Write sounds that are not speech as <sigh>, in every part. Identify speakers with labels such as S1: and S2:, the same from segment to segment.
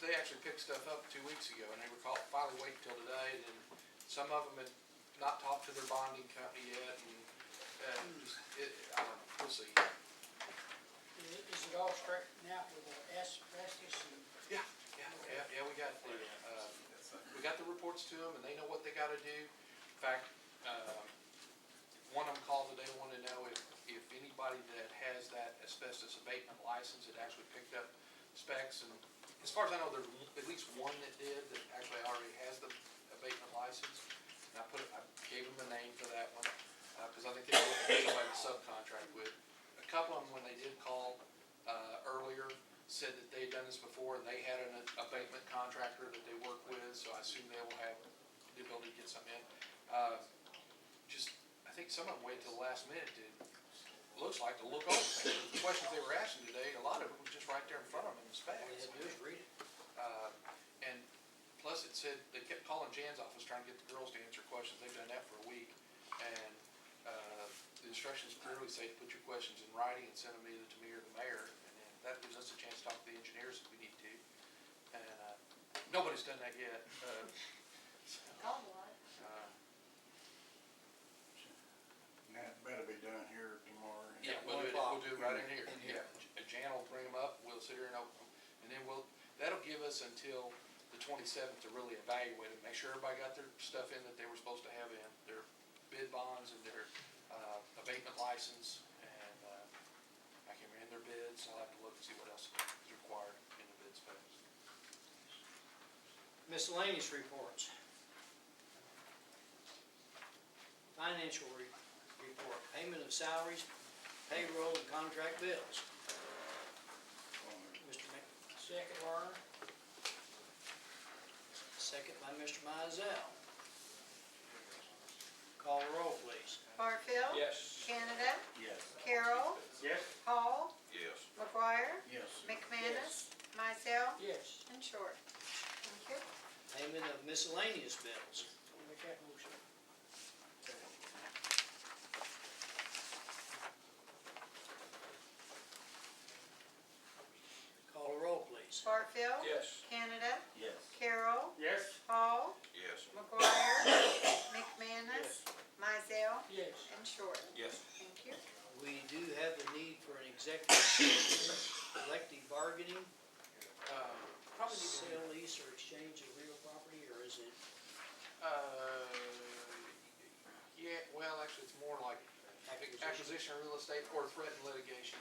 S1: they actually picked stuff up two weeks ago, and they were called, finally waiting till today, and then some of them had not talked to their bonding company yet, and, and it, I don't know, we'll see.
S2: Is it- is it all straightened out with the asbestos and?
S1: Yeah, yeah, yeah, yeah, we got, the, uh, we got the reports to them, and they know what they gotta do. In fact, um, one of them called today, wanted to know if, if anybody that has that asbestos abatement license had actually picked up specs, and as far as I know, there's at least one that did, that actually already has the abatement license. And I put, I gave them the name for that one, uh, cause I think they were looking for somebody to subcontract with. A couple of them, when they did call, uh, earlier, said that they'd done this before, and they had an abatement contractor that they worked with, so I assume they will have the ability to get some in. Uh, just, I think some of them waited till the last minute to, looks like to look over. things. The questions they were asking today, a lot of it was just right there in front of them in the
S3: All you
S1: specs.
S3: had to do is read it.
S1: Uh, And plus it said, they kept calling Jan's office trying to get the girls to answer questions. They've done that for a week. And uh, the instructions clearly say to put your questions in writing and send them either to me or the mayor. And then that gives us a chance to talk to the engineers if we need to. And uh, nobody's done that yet. uh, so,
S4: God, what?
S1: uh,
S5: And that better be done here tomorrow.
S1: Yeah, we'll do it, we'll do it right in here, yeah. J- Jan will bring them up, we'll sit here and open them, and then we'll, that'll give us until the twenty-seventh to really evaluate it, make sure everybody got their stuff in that they were supposed to have in, their bid bonds and their, uh, abatement license, and, uh, I can remember their bids, I'll have to look and see what else is required in the bid specs.
S3: Miscellaneous reports. Financial re- report, payment of salaries, payroll and contract bills. Mr. Mc,
S2: Second learner,
S3: second by Mr. Mizell. Call roll, please.
S4: Barfield.
S6: Yes.
S4: Canada.
S5: Yes.
S4: Carol.
S6: Yes.
S4: Hall.
S6: Yes.
S4: McGuire.
S5: Yes.
S4: McManus. Mizell.
S2: yes,
S4: And Short. Thank you.
S3: Payment of miscellaneous bills.
S2: I'll make that motion.
S3: Call roll, please.
S4: Barfield.
S6: Yes.
S4: Canada.
S5: Yes.
S4: Carol.
S6: Yes.
S4: Hall.
S6: Yes. <coughs>
S4: McGuire. McManus. Mizell.
S2: Yes,
S4: And Short.
S6: Yes.
S4: Thank you.
S3: We do have a need for an executive session, collective bargaining,
S1: Uh, Probably need to,
S3: sale, lease, or exchange of real property, or is it
S1: uh, yeah, well, actually, it's more like
S3: acquisition?
S1: acquisition of real estate or threatened litigation.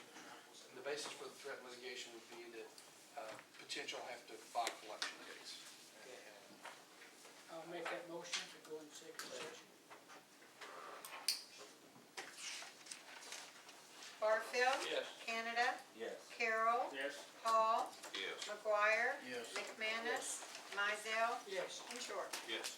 S1: And the basis for the threatened litigation would be that uh, potential have to file collection case. And
S2: I'll make that motion to go in second session.
S4: Barfield.
S6: Yes.
S4: Canada.
S5: Yes.
S4: Carol.
S6: Yes.
S4: Hall.
S6: Yes.
S4: McGuire.
S5: Yes.
S4: McManus. Mizell.
S2: Yes,
S4: And Short.
S6: Yes.